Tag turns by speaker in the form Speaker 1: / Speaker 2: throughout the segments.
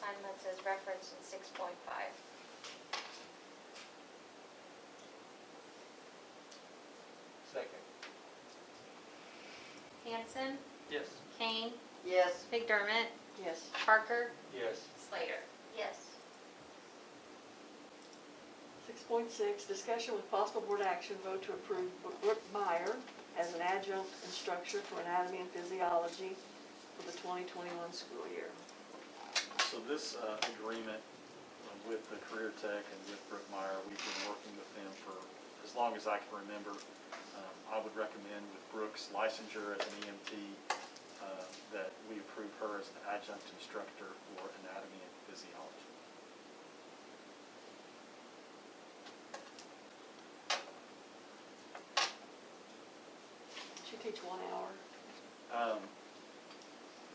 Speaker 1: time months as referenced in six point five.
Speaker 2: Second.
Speaker 1: Hanson,
Speaker 2: Yes.
Speaker 1: Kane,
Speaker 3: Yes.
Speaker 1: McDermott,
Speaker 3: Yes.
Speaker 1: Parker,
Speaker 2: Yes.
Speaker 1: Slater. Yes.
Speaker 3: Six point six, discussion with possible board action, vote to approve Brooke Meyer as an adjunct instructor for anatomy and physiology for the twenty twenty-one school year.
Speaker 4: So this uh, agreement um, with the Career Tech and with Brook Meyer, we've been working with them for as long as I can remember. Um, I would recommend with Brooks licensure as an EMT, uh, that we approve her as an adjunct instructor for anatomy and physiology.
Speaker 3: She teach one hour.
Speaker 4: Um,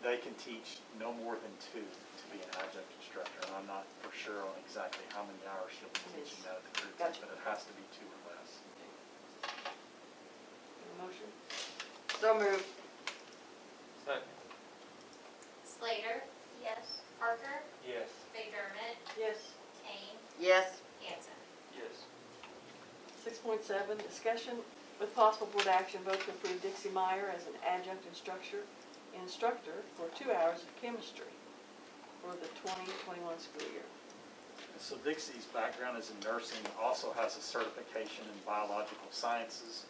Speaker 4: They can teach no more than two to be an adjunct instructor, and I'm not for sure on exactly how many hours she'll be teaching that at the Career Tech,
Speaker 3: Gotcha.
Speaker 4: but it has to be two or less.
Speaker 3: Motion? So moved.
Speaker 2: Second.
Speaker 1: Slater. Yes. Parker,
Speaker 2: Yes.
Speaker 1: McDermott,
Speaker 3: Yes.
Speaker 1: Kane,
Speaker 5: Yes,
Speaker 1: Hanson.
Speaker 2: Yes.
Speaker 3: Six point seven, discussion with possible board action, vote to approve Dixie Meyer as an adjunct instructor, instructor for two hours of chemistry for the twenty twenty-one school year.
Speaker 4: So Dixie's background is in nursing, also has a certification in biological sciences.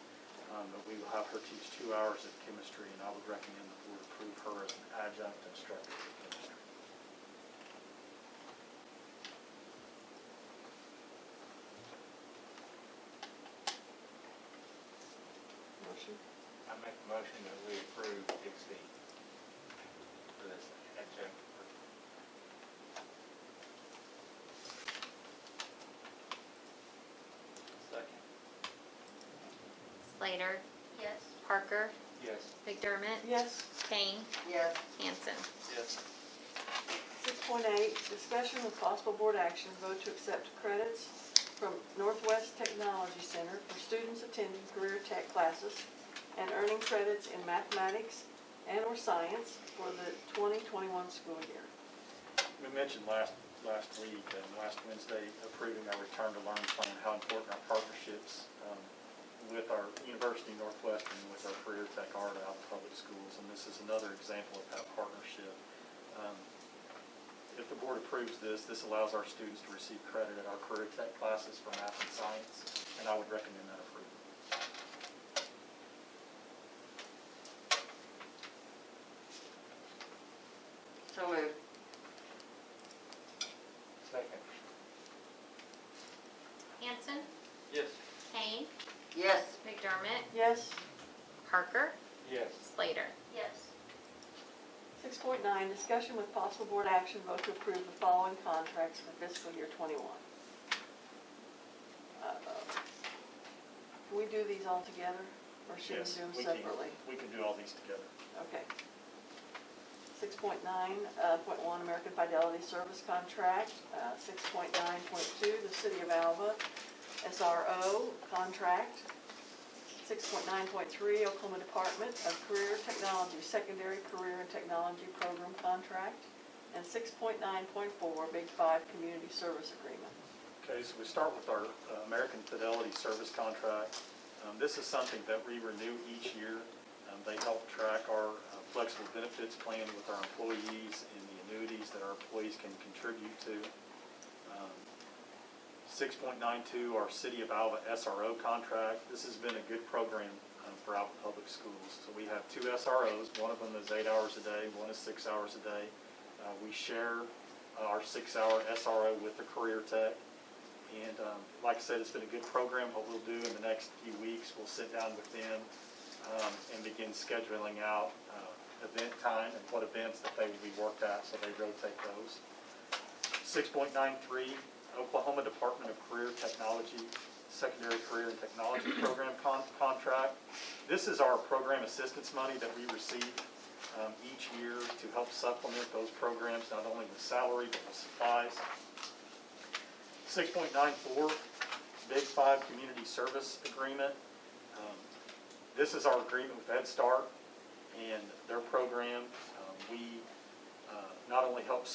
Speaker 4: um, But we will have her teach two hours of chemistry, and I would recommend the board approve her as an adjunct instructor for chemistry.
Speaker 3: Motion?
Speaker 2: I make a motion that we approve Dixie for this adjunct. Second.
Speaker 6: Slater,
Speaker 1: Yes.
Speaker 6: Parker,
Speaker 2: Yes.
Speaker 6: McDermott,
Speaker 3: Yes.
Speaker 6: Kane,
Speaker 5: yes,
Speaker 6: Hanson.
Speaker 2: Yes.
Speaker 3: Six point eight, discussion with possible board action, vote to accept credits from Northwest Technology Center for students attending career tech classes and earning credits in mathematics and/or science for the twenty twenty-one school year.
Speaker 4: We mentioned last, last week, and last Wednesday, approving our return to learn plan, how important our partnerships um, with our University of Northwestern, with our career tech art out in public schools, and this is another example of that partnership. Um, If the board approves this, this allows our students to receive credit at our career tech classes for math and science, and I would recommend that approval.
Speaker 5: so moved,
Speaker 2: Second.
Speaker 6: Hanson,
Speaker 2: Yes.
Speaker 6: Kane,
Speaker 5: yes,
Speaker 6: McDermott,
Speaker 3: Yes?
Speaker 6: Parker,
Speaker 2: Yes.
Speaker 6: Slater.
Speaker 1: Yes.
Speaker 3: Six point nine, discussion with possible board action, vote to approve the following contracts for fiscal year twenty-one. Uh, Can we do these all together, or should we
Speaker 4: Yes,
Speaker 3: do them
Speaker 4: we can-
Speaker 3: separately?
Speaker 4: We can do all these together.
Speaker 3: Okay. Six point nine, uh, point one, American Fidelity Service Contract, uh, six point nine, point two, the City of Alva SRO Contract, six point nine, point three, Oklahoma Department of Career Technology Secondary Career and Technology Program Contract, and six point nine, point four, Big Five Community Service Agreement.
Speaker 4: Okay, so we start with our uh, American Fidelity Service Contract. Um, This is something that we renew each year. Um, They help track our uh, flexible benefits plan with our employees and the annuities that our employees can contribute to. Um, 6.92, our City of Alva SRO contract. This has been a good program um, for Alva Public Schools. So we have two SROs, one of them is eight hours a day, one is six hours a day. Uh, We share uh, our six-hour SRO with the Career Tech. And um, like I said, it's been a good program. What we'll do in the next few weeks, we'll sit down with them um, and begin scheduling out uh, event time and what events that they will be worked at, so they rotate those. 6.93, Oklahoma Department of Career Technology, Secondary Career and Technology Program con- contract. This is our program assistance money that we receive um, each year to help supplement those programs, not only with salary, but with supplies. 6.94, Big Five Community Service Agreement. Um, This is our agreement with Head Start and their program. Um, We uh, not only help